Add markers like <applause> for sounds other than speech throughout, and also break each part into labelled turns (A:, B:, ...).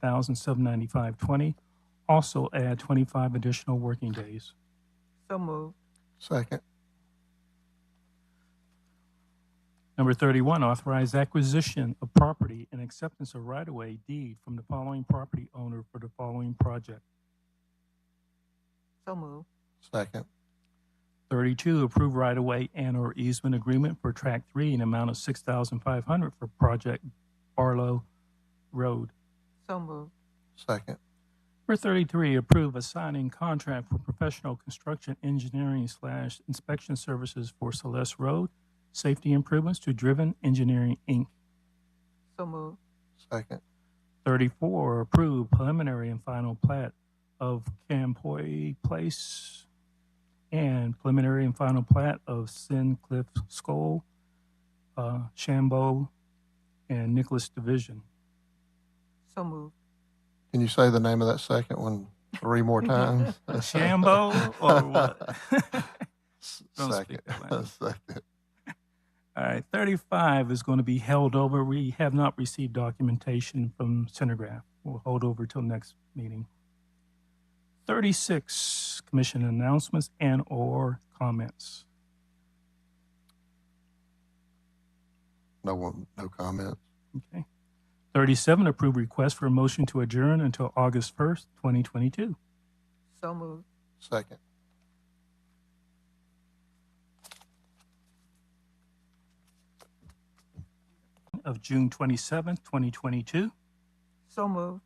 A: thousand seven ninety-five twenty. Also add twenty-five additional working days.
B: So moved.
C: second,
A: Number 31, authorize acquisition of property and acceptance of right-of-way deed from the following property owner for the following project.
B: So moved.
C: second,
A: 32, approve right-of-way and/or easement agreement for Track 3 in amount of 6500 for Project Barlow Road.
B: So moved.
C: second,
A: Number 33, approve a signing contract for professional construction engineering slash inspection services for Celeste Road, safety improvements to Driven Engineering, Inc.
B: So moved.
C: second,
A: 34, approve preliminary and final plat of Campoy Place and preliminary and final plat of Sincliff Skull, uh, Shambo, and Nicholas Division.
B: So moved.
C: Can you say the name of that second one three more times? <laughs>
A: Shambo or what? <laughs>
C: S-
A: Don't
C: Second,
A: speak that language.
C: <laughs> second,
A: All right, 35 is going to be held over. We have not received documentation from Centergraph. We'll hold over till next meeting. 36, commission announcements and/or comments.
C: no one, no comments,
A: Okay. 37, approve request for a motion to adjourn until August 1st, 2022.
B: So moved.
C: second.
A: Of June 27th, 2022.
B: So moved.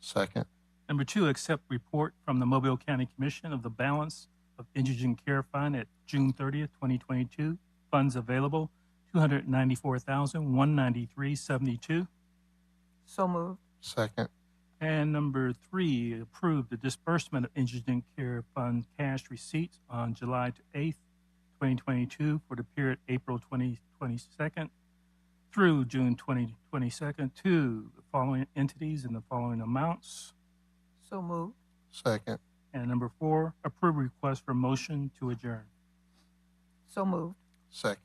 C: Second,
A: Number two, accept report from the Mobile County Commission of the balance of indigent care fund at June 30th, 2022. Funds available, 294,193.72.
B: So moved.
C: second,
A: And number three, approve the disbursement of indigent care fund cash receipts on July 8th, 2022 for the period April 2022nd through June 2022 to the following entities in the following amounts.
B: So moved.
C: second,
A: And number four, approve request for motion to adjourn.
B: So moved.
C: second.